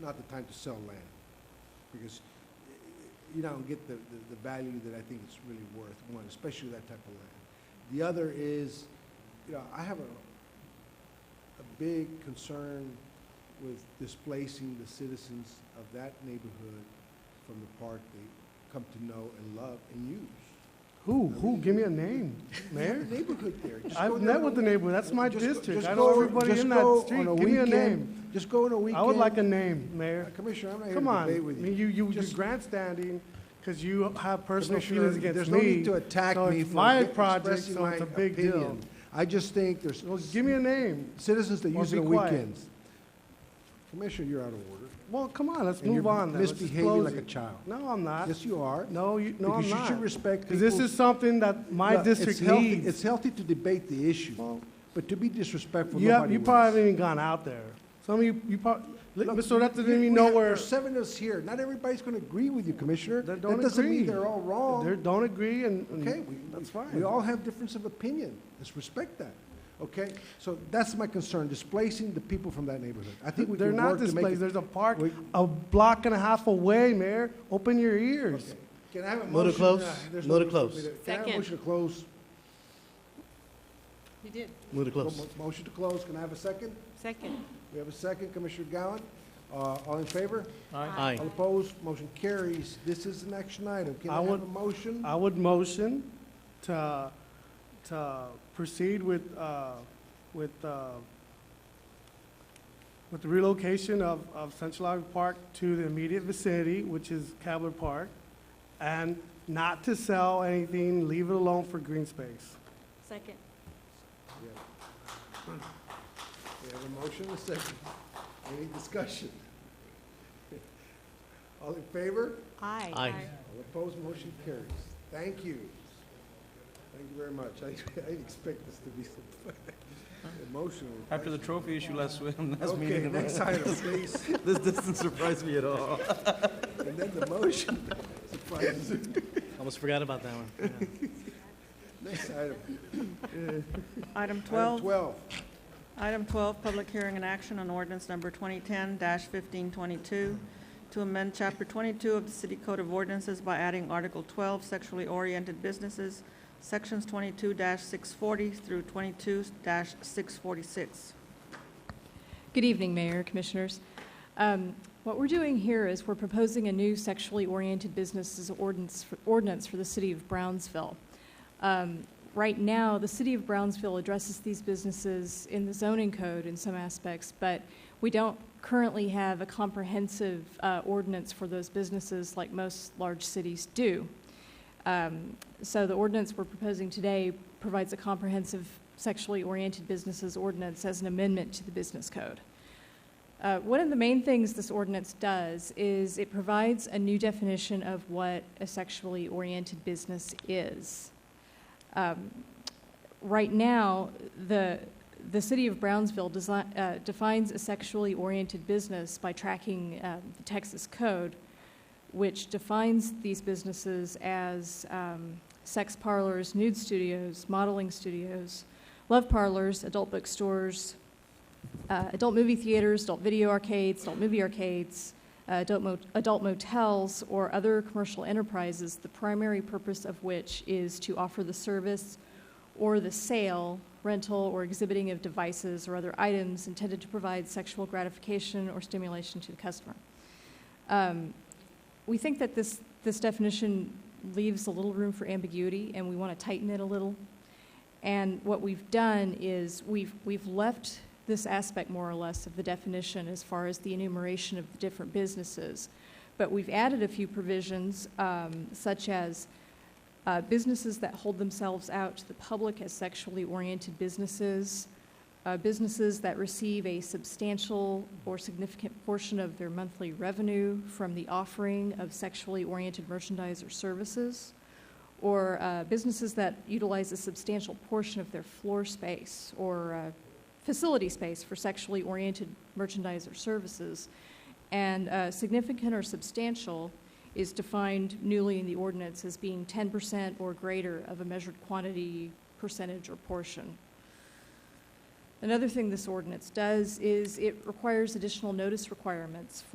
not the time to sell land, because eh, you don't get the, the- the value that I think it's really worth, one, especially that type of land. The other is, you know, I have a, a big concern with displacing the citizens of that neighborhood from the park they come to know and love and use. Who, who, give me a name, Mayor? The Neighborhood there. Just go I've there met with on- the neighborhood, that's my just go- district, just I go- know everybody just in go that on street, a give me a weekend. name. Just go on a weekend. I would like a name, Mayor. Uh, Commissioner, I'm not here Come to on, I debate with mean, you. you, you, you're Just- grandstanding, because you have personal Commissioner, feelings against There's no me. need to attack so me it's for my ge- project, expressing so it's my a big deal. opinion. I just think there's Well, give me a name. citizens that Or use be it on quiet. weekends. Commissioner, you're out of order. Well, come on, let's and move you're on then. Let's just Misbehaving close like a it. child. No, I'm not. Yes, you are. No, you, no, I'm Because you should not. respect Because this people's- is something that my Look, it's district healthy- needs. It's healthy to debate the issue, Well, but to be disrespectful, You have, nobody you wins. probably haven't even gone out there. Some of you, you probably, Look, Mr. Odette we- didn't even we know have- where, There are seven of us here. Not everybody's going to agree with you, Commissioner. They That don't doesn't mean agree. they're all they wrong. don't agree and, and Oh. Okay, we- that's we- fine. We all have difference of opinion. Let's respect that. Okay? So that's my concern, displacing the people from that neighborhood. I think we They're can not work to make displaced, it. there's a park we- a block and a half away, Mayor. Open your ears. Okay. Can I have a motion? Move to close. Uh, there's no Move to need for me close. Can I have a Second. motion to close? You did. Move to close. Mo- Motion to close. Can I have a second? Second. We have a second. Commissioner Gowan, uh, all in favor? Aye. All opposed? Motion carries. This is an action item. Can I I have would- a motion? I would motion to, to proceed with, uh, with, uh, with the relocation of, of Central Iowa Park to the immediate vicinity, which is Cavler Park, and not to sell anything, leave it alone for green space. Second. Yeah. We have a motion, a second. Any discussion? All in favor? Aye. Aye. All opposed, motion carries. Thank you. Thank you very much. I I didn't expect this to be so emotional. After the trophy issue last, week- last Okay, meeting, next item, please. This doesn't surprise me at all. And then the motion surprises me. Almost forgot about that one. Yeah. Next item. Item Item 12, twelve. item 12, public hearing and action on ordinance number 2010-1522 to amend Chapter 22 of the City Code of Ordinances by adding Article 12, sexually oriented businesses, Sections 22-640 through 22-646. Good evening, Mayor, Commissioners. Um, What we're doing here is we're proposing a new sexually oriented businesses ordinance for- ordinance for the city of Brownsville. Um, Right now, the city of Brownsville addresses these businesses in the zoning code in some aspects, but we don't currently have a comprehensive uh, ordinance for those businesses like most large cities do. Um, So the ordinance we're proposing today provides a comprehensive sexually oriented businesses ordinance as an amendment to the business code. Uh, One of the main things this ordinance does is it provides a new definition of what a sexually oriented business is. Um, Right now, the, the city of Brownsville desi- uh, defines a sexually oriented business by tracking uh, the Texas code, which defines these businesses as um, sex parlors, nude studios, modeling studios, love parlors, adult bookstores, uh, adult movie theaters, adult video arcades, adult movie arcades, uh, adult mot- adult motels, or other commercial enterprises, the primary purpose of which is to offer the service or the sale, rental, or exhibiting of devices or other items intended to provide sexual gratification or stimulation to the customer. Um, we think that this, this definition leaves a little room for ambiguity, and we want to tighten it a little. And what we've done is we've, we've left this aspect more or less of the definition as far as the enumeration of the different businesses. But we've added a few provisions, um, such as uh, businesses that hold themselves out to the public as sexually oriented businesses, uh, businesses that receive a substantial or significant portion of their monthly revenue from the offering of sexually oriented merchandise or services, or uh, businesses that utilize a substantial portion of their floor space or uh, facility space for sexually oriented merchandise or services. And uh, significant or substantial is defined newly in the ordinance as being 10% or greater of a measured quantity, percentage, or portion. Another thing this ordinance does is it requires additional notice requirements